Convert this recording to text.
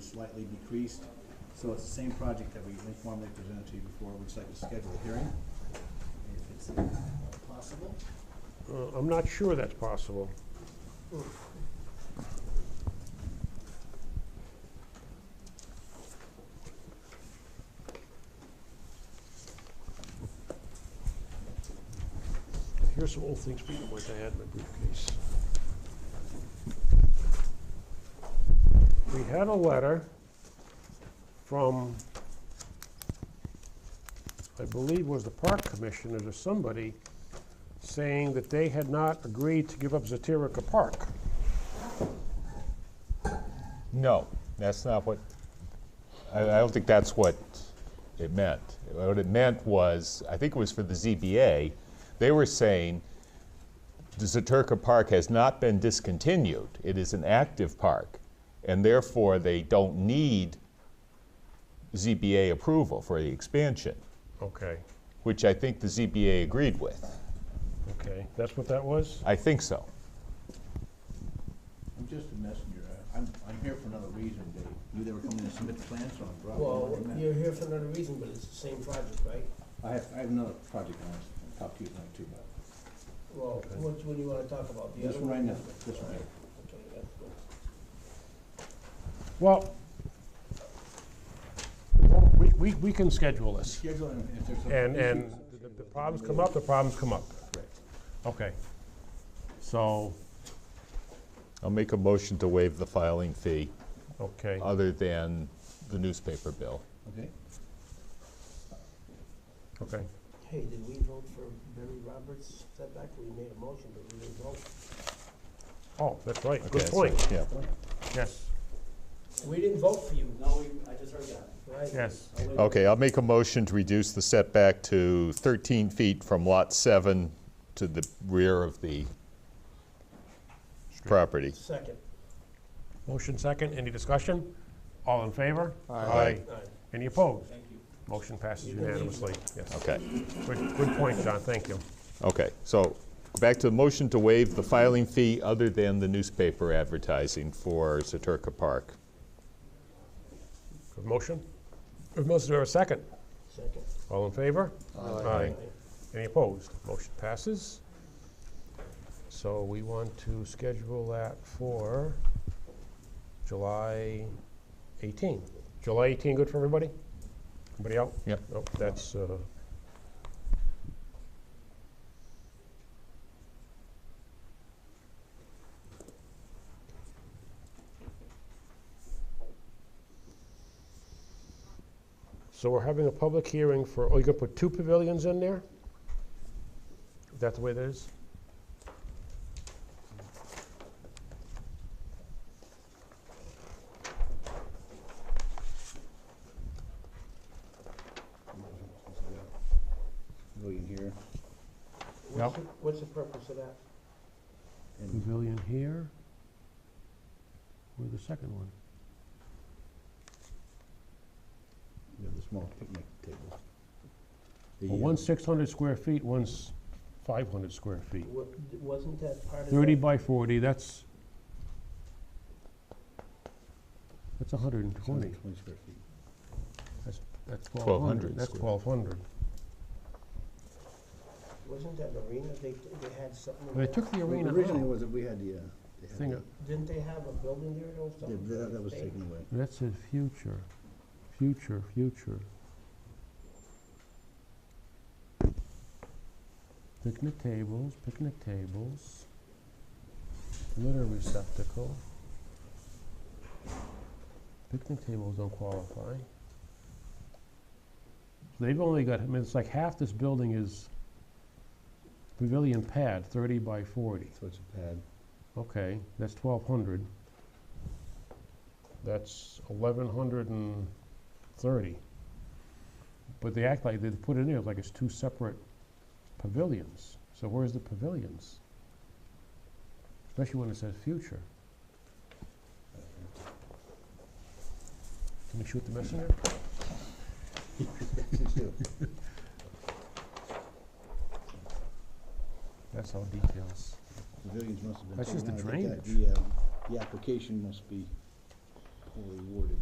slightly decreased. So it's the same project that we informally presented to you before. We'd just like to schedule a hearing, if it's uh, possible. Uh, I'm not sure that's possible. Here's some old things people might have had in my briefcase. We had a letter from, I believe was the park commissioners or somebody, saying that they had not agreed to give up Zatirica Park. No, that's not what, I, I don't think that's what it meant. What it meant was, I think it was for the ZBA, they were saying the Zaterka Park has not been discontinued. It is an active park, and therefore they don't need ZBA approval for the expansion, Okay, which I think the ZBA agreed with. okay, that's what that was? I think so. I'm just a messenger. I- I'm, I'm here for another reason, Dave. You they were coming to submit plans on, Rob. Well, you're here for another reason, but it's the same project, right? I have, I have another project I want to talk to you tonight too, but Well, which one do you wanna talk about? The this other one right now, this one. right. Okay, that's good. Well, we, we, we can schedule this. Schedule and if there's. some And, and issues- the- the problems come up, the problems come up. Correct. Okay. So, I'll make a motion to waive the filing fee okay, other than the newspaper bill. Okay, okay. Hey, did we vote for Barry Roberts setback? We made a motion, but we didn't vote. Oh, that's right, good Okay, so- point. Yeah. Yes, We didn't vote for you, No, we, I just heard that. right? yes. I'll Oh. wait. Okay, I'll make a motion to reduce the setback to 13 feet from Lot 7 to the rear of the property. Second. Motion second, any discussion? All in favor? Aye. All right. Any opposed? Thank you. Motion passes You can leave. unanimously, yes. Okay, Good, good point, John, thank you. okay. So back to the motion to waive the filing fee other than the newspaper advertising for Zaterka Park. Good motion? Good motion, do I have a second? Second. All in favor? Aye. Any opposed? Motion passes. So we want to schedule that for July 18. July 18, good for everybody? Everybody out? Yep. Nope, that's, uh, so we're having a public hearing for, oh, you're gonna put two pavilions in there? Is that the way that is? go in here. What's the- What's the purpose of that? And Pavilion here. Where's the second one? we have the small picnic table. The, Well, uh, one's 600 square feet, one's 500 square feet. Wa- Wasn't that part of? 30 that- by 40, that's, that's 120. uh, Twenty square feet. That's 1,200 1,200. That's square. 1,200. Wasn't that an arena? They, they had something. in They there? took the arena Originally out. was that we had the, uh, they had Thing, the- uh, Didn't they have a building there or yeah, something? that, that was They- taken away. That's a future, future, future. Picnic tables, picnic tables, litter receptacle. Picnic tables don't qualify. They've only got, I mean, it's like half this building is pavilion pad, thirty by forty. So it's a pad. Okay, that's twelve hundred. That's eleven hundred and thirty. But they act like, they put it in there like it's two separate pavilions. So where's the pavilions? Especially when it says future. Can we shoot the messenger? That's all details. Pavilions must have been. That's taken just the uh, out. I think that drainage. The, uh, the application must be poorly worded.